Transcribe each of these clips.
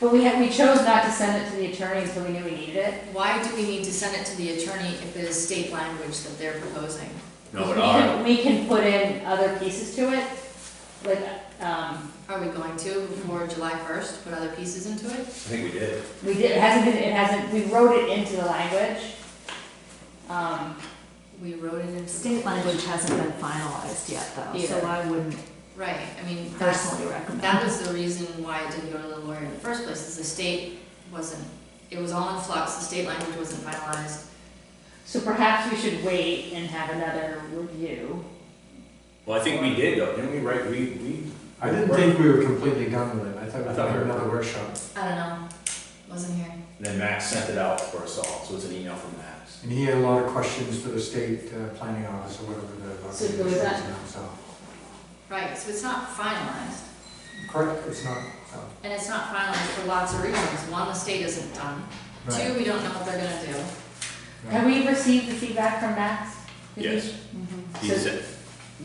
But we had, we chose not to send it to the attorney until we knew we needed it. Why do we need to send it to the attorney if it is state language that they're proposing? No, We it can- are, We can put in other pieces to it, like, um, Are we going to before July 1st, put other pieces into I it? think we did. we did, it hasn't been, it hasn't, we wrote it into the language. Um, We wrote it into. State language hasn't been finalized yet, though, so Either. I wouldn't Right, I mean, that's, personally recommend. that was the reason why it didn't go to the lawyer in the first place, is the state wasn't, it was all in flux, the state language wasn't finalized. so perhaps we should wait and have another review. Well, I think we did though, didn't we write, we, we. I didn't think we were completely done with it, I thought I we thought had we were- another workshop. I don't know, wasn't here. Then Max sent it out for us all, so it's an email from Max. And he had a lot of questions for the state uh, planning office or whatever the. So there was that- So, Right, so it's not finalized, correct, it's not, so, and it's not finalized for lots of reasons. One, the state isn't done. Two, right. we don't know what they're gonna do. Have we received the feedback from Max? Did we? Hmm. Mhm. Yes, he So said,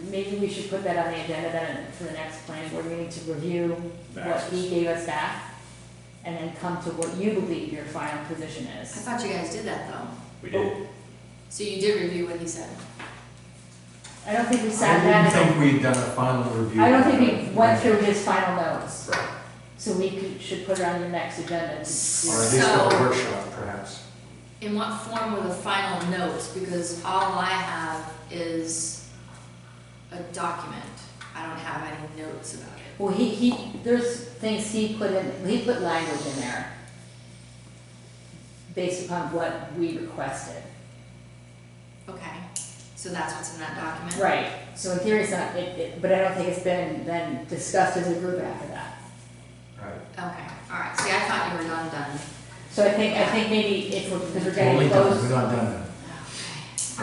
Maybe we should put that on the agenda then for the next planning board meeting to review what Max. he gave us back, and then come to what you believe your final position I is. thought you guys did that though. We did. So you did review what he said. I don't think we sat down I and didn't think we'd done a final review. I don't think we went through Or his final notes, Right. so we could, should put it on the next agenda. to do at it. least So- a workshop, perhaps. In what form were the final notes? Because all I have is a document. I don't have any notes about it. Well, he, he, there's things he put in, he put language in there based upon what we requested. Okay, so that's what's in that document? Right, so in theory it's not, it, it, but I don't think it's been then discussed as a group after that. Right. Okay, all right. See, I thought you were done, done. So I think, I think maybe if we're, because we're getting Only done, close, We're not done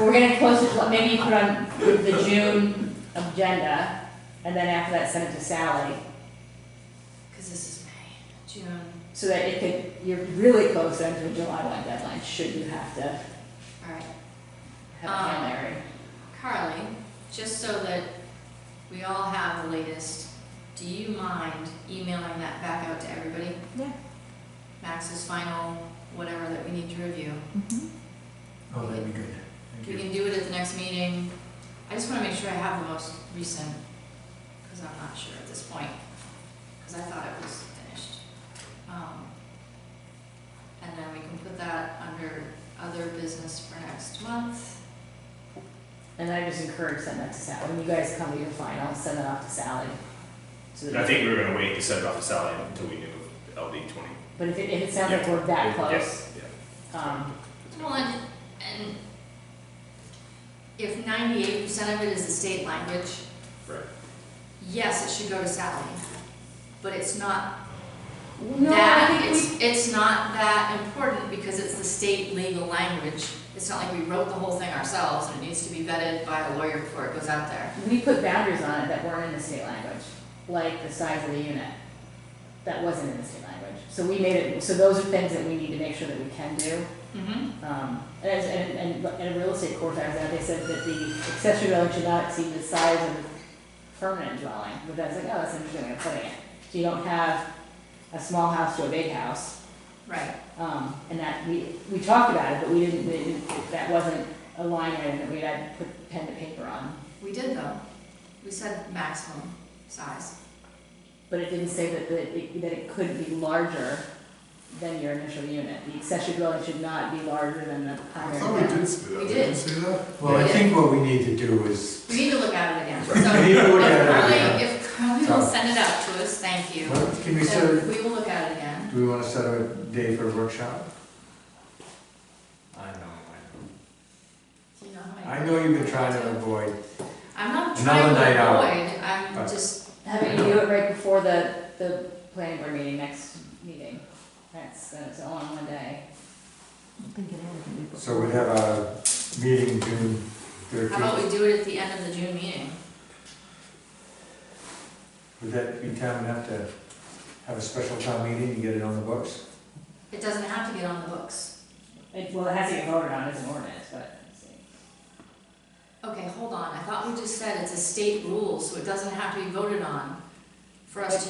we're getting close to, Ju- maybe you put on the the June agenda, and then after that send it to Sally. Because this is May, June, So that it could, you're really close then to a July one deadline, should you have to all right. have a Um, Hail Mary. Carly, just so that we all have the latest, do you mind emailing that back out to everybody? Yeah. Max's final, whatever that we need to review. Mhm. Oh, that'd be good. We Thank you. can do it at the next meeting. I just wanna make sure I have the most recent, cause I'm not sure at this point, cause I thought it was finished. Um, And then we can put that under other business for next month. And I just encourage send that to Sally, when you guys come to your final, send that off to Sally. So that- I think we were gonna wait to send it off to Sally until we knew of LD twenty. But if it, if it sounds like we're that close, Yes, yeah. um, Well, and, and if ninety-eight percent of it is the state language. Right. Yes, it should go to Sally, but it's not no, I that, think we, it's, it's not that important because it's the state legal language. It's not like we wrote the whole thing ourselves and it needs to be vetted by a lawyer before it goes out there. we put boundaries on it that weren't in the state language, like the size of the unit. That wasn't in the state language, so we made it, so those are things that we need to make sure that we can do. Mm-hmm. Um, and, as- and, and, and a real estate court, I was at, they said that the accessory dwelling should not exceed the size of a permanent dwelling, which I was like, oh, that's an interesting way of putting it. So you don't have a small house to a big house, Right, um, and that, we, we talked about it, but we didn't, we didn't- that wasn't a line item that we had to put pen to paper on. we did though. We said maximum size. But it didn't say that, that it, that it could be larger than your initial unit, the accessory dwelling should not be larger than the primary dwelling. say that. We did. Didn't say that? Well, I think what we need to do is, We need to look at it again. So we need to look if at it Carly, again. if Carly will send it out to us, thank you. What- Can we set, So a- we will look at it again. do we want to set a day for a workshop? I know, Do you know how I know. I know you've been trying to avoid, I'm not Another trying to night out. avoid, I'm Right. just, How about you do it right before the, the planning board meeting, next meeting? That's, that's all in one day. I think it all can be so we'd have a meeting June how about thirteenth. we do it at the end of the June meeting? Would that be time enough to have a special town meeting and get it on the books? It doesn't have to get on the books. It, well, it has to get voted on as an ordinance, but, Okay, hold on, I thought we just said it's a state rule, so it doesn't have to be voted on for us to